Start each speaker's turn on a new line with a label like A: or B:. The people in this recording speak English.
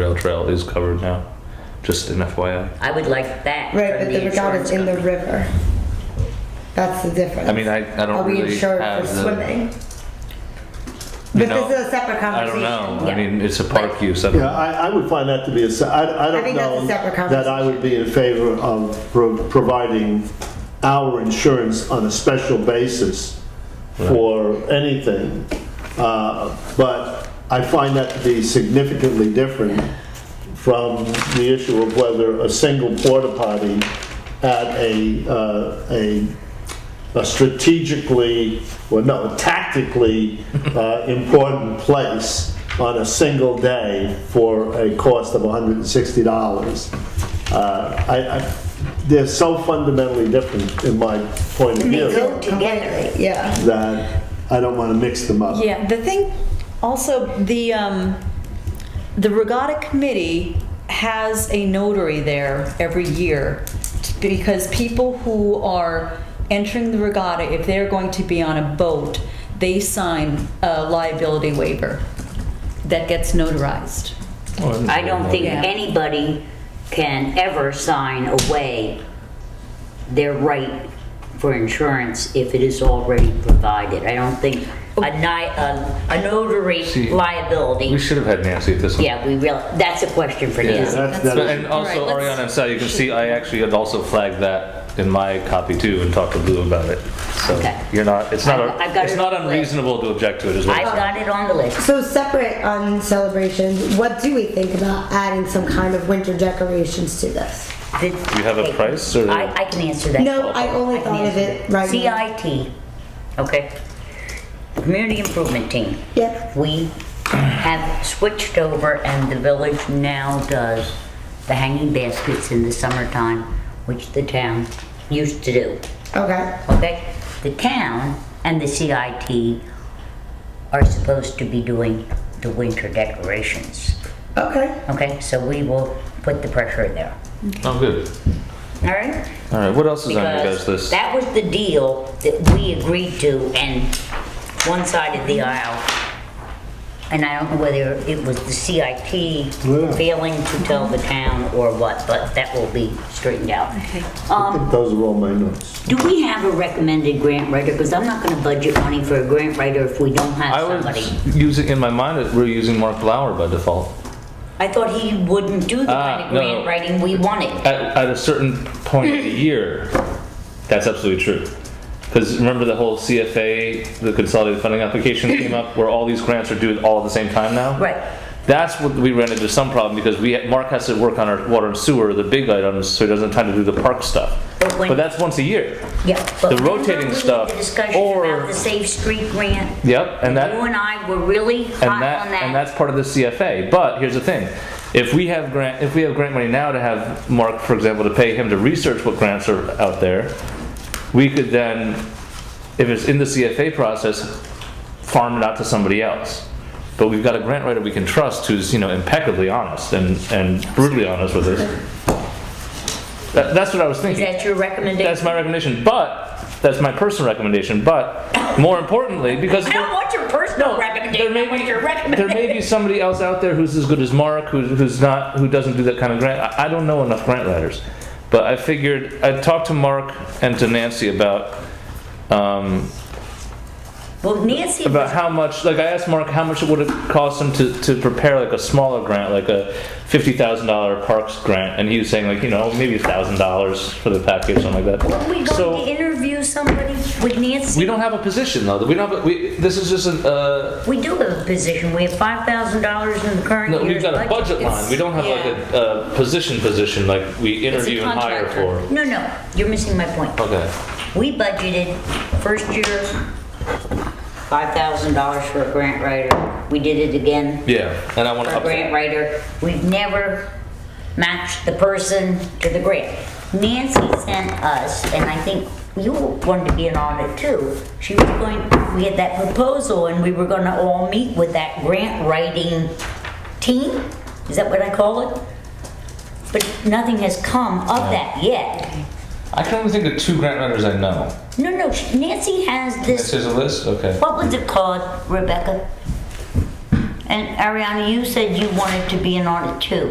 A: rail trail is covered now. Just an FYI.
B: I would like that.
C: Right,
B: from
C: but the regatta is in the
B: insurance
C: river. That's the difference.
A: I mean, I, I don't
C: Are we
A: really
C: insured
A: have
C: for
A: the.
C: swimming?
A: You
C: But
A: know,
C: this is a separate
A: I
C: conversation.
A: don't know. I
B: Yeah.
A: mean, it's a park use. I don't-
D: Yeah, I, I would find that to be a, se- I, I
C: I
D: don't
C: think that's a
D: know
C: separate
D: that I would be in favor of pro- providing our insurance on a special basis for anything. Uh, But I find that to be significantly different from the issue of whether a single porta potty at a, uh, a a strategically, well, no, tactically uh, important place on a single day for a cost of $160. Uh, I, I, they're so fundamentally different in my point of
C: They
D: view
C: go together, yeah.
D: that I don't want to mix them up.
E: Yeah, the thing, also, the, um, the regatta committee has a notary there every year t- because people who are entering the regatta, if they're going to be on a boat, they sign a liability waiver that gets notarized.
B: company. I don't think
E: Yeah.
B: anybody can ever sign away their right for insurance if it is already provided. I don't think
C: Oh.
B: a ni, a a notary
A: See,
B: liability,
A: We should have had Nancy at this one.
B: yeah, we real, that's a question for
A: Yeah.
B: Nancy.
D: That's,
A: But-
D: that
A: and also,
E: All right,
A: Ariana,
E: let's-
A: I'm sorry, you can see I actually had also flagged that in my copy too and talked to Lou about it. So
B: Okay.
A: you're not, it's not,
B: I've- I've got
A: it's
B: it
A: not
B: on the
A: unreasonable to object to it as well.
B: I've got it on the list.
C: So separate on celebrations, what do we think about adding some kind of winter decorations to this?
B: Do
A: you have a price, or-
B: I, I can answer that.
C: No, I only
B: can
C: thought of
B: answer
C: it
B: that.
C: right now.
B: CIT, okay, Community Improvement Team.
C: Yep.
B: We have switched over and the village now does the hanging baskets in the summertime, which the town used to do
C: Okay,
B: okay? The town and the CIT are supposed to be doing the winter decorations,
C: okay.
B: okay? So we will put the pressure there,
A: Oh, good.
B: all right?
A: All right, what else is on your guys'
B: Because
A: list?
B: that was the deal that we agreed to and one side of the aisle. And I don't know whether it was the CIT
D: Yeah.
B: failing to tell the town or what, but that will be straightened out.
D: I
B: Um,
D: think those are all my notes.
B: Do we have a recommended grant writer? Because I'm not gonna budget money for a grant writer if we don't have
A: I
B: somebody.
A: was using, in my mind, that we're using Mark Lauer by default.
B: I thought he wouldn't do the kind
A: Ah,
B: of
A: no,
B: grant
A: no.
B: writing we wanted.
A: At, at a certain point of the year, that's absolutely true. Because remember the whole CFA, the consolidated funding application came up, where all these grants are due all at the same time now?
B: Right.
A: That's what we ran into some problem, because we, Mark has to work on our water and sewer, the big items, so he doesn't have time to do the park stuff.
B: But when-
A: But that's once a year.
B: Yeah,
A: The
B: but remember
A: rotating
B: we had
A: stuff,
B: the Discussion
A: or-
B: about the Safe Street grant?
A: Yep, and that.
B: You and I were really hot on
A: and that, and that's part of the CFA. But here's the thing: if we have grant, if we have grant money now to have Mark, for example, to pay him to research what grants are out there, we could then, if it's in the CFA process, farm it out to somebody else. But we've got a grant writer we can trust who's you know impeccably honest and and brutally honest with us. That, that's what I was
B: Is
A: thinking.
B: that your recommendation?
A: That's my recommendation, but that's my personal recommendation. But more importantly, because
B: I don't want your personal recommendation. I want
A: there
B: your
A: may
B: recommendation.
A: be somebody else out there who's as good as Mark, who, who's not, who doesn't do that kind of grant. I, I don't know enough grant writers, but I figured I talked to Mark and to Nancy about um,
B: Well, Nancy,
A: about how much. Like I asked Mark how much it would have cost him to, to prepare like a smaller grant, like a fifty thousand dollar parks grant, and he was saying like you know maybe thousand dollars for the package, something like that.
B: were we going to
A: so
B: interview somebody with Nancy?
A: we don't have a position though. We don't. Have a, we, this is just an. Uh,
B: We do have a position. We have five thousand dollars in the current
A: No, we've
B: year's budget.
A: got a budget line, we don't have like a, a position position, like we interview and hire for.
B: No, no, you're missing my point.
A: Okay,
B: We budgeted first year, five thousand dollars for a grant writer. We did it again
A: yeah, and I wanna
B: for a
A: up
B: grant
A: that.
B: writer. We've never matched the person to the grant. Nancy sent us, and I think you wanted to be an audit too. She was going, we had that proposal and we were gonna all meet with that grant writing team? Is that what I call it? But nothing has come of that yet.
A: I can only think of two grant writers I know.
B: No, no, Nancy has this,
A: This is a list, okay.
B: what was it called, Rebecca? And Ariana, you said you wanted to be in on it too.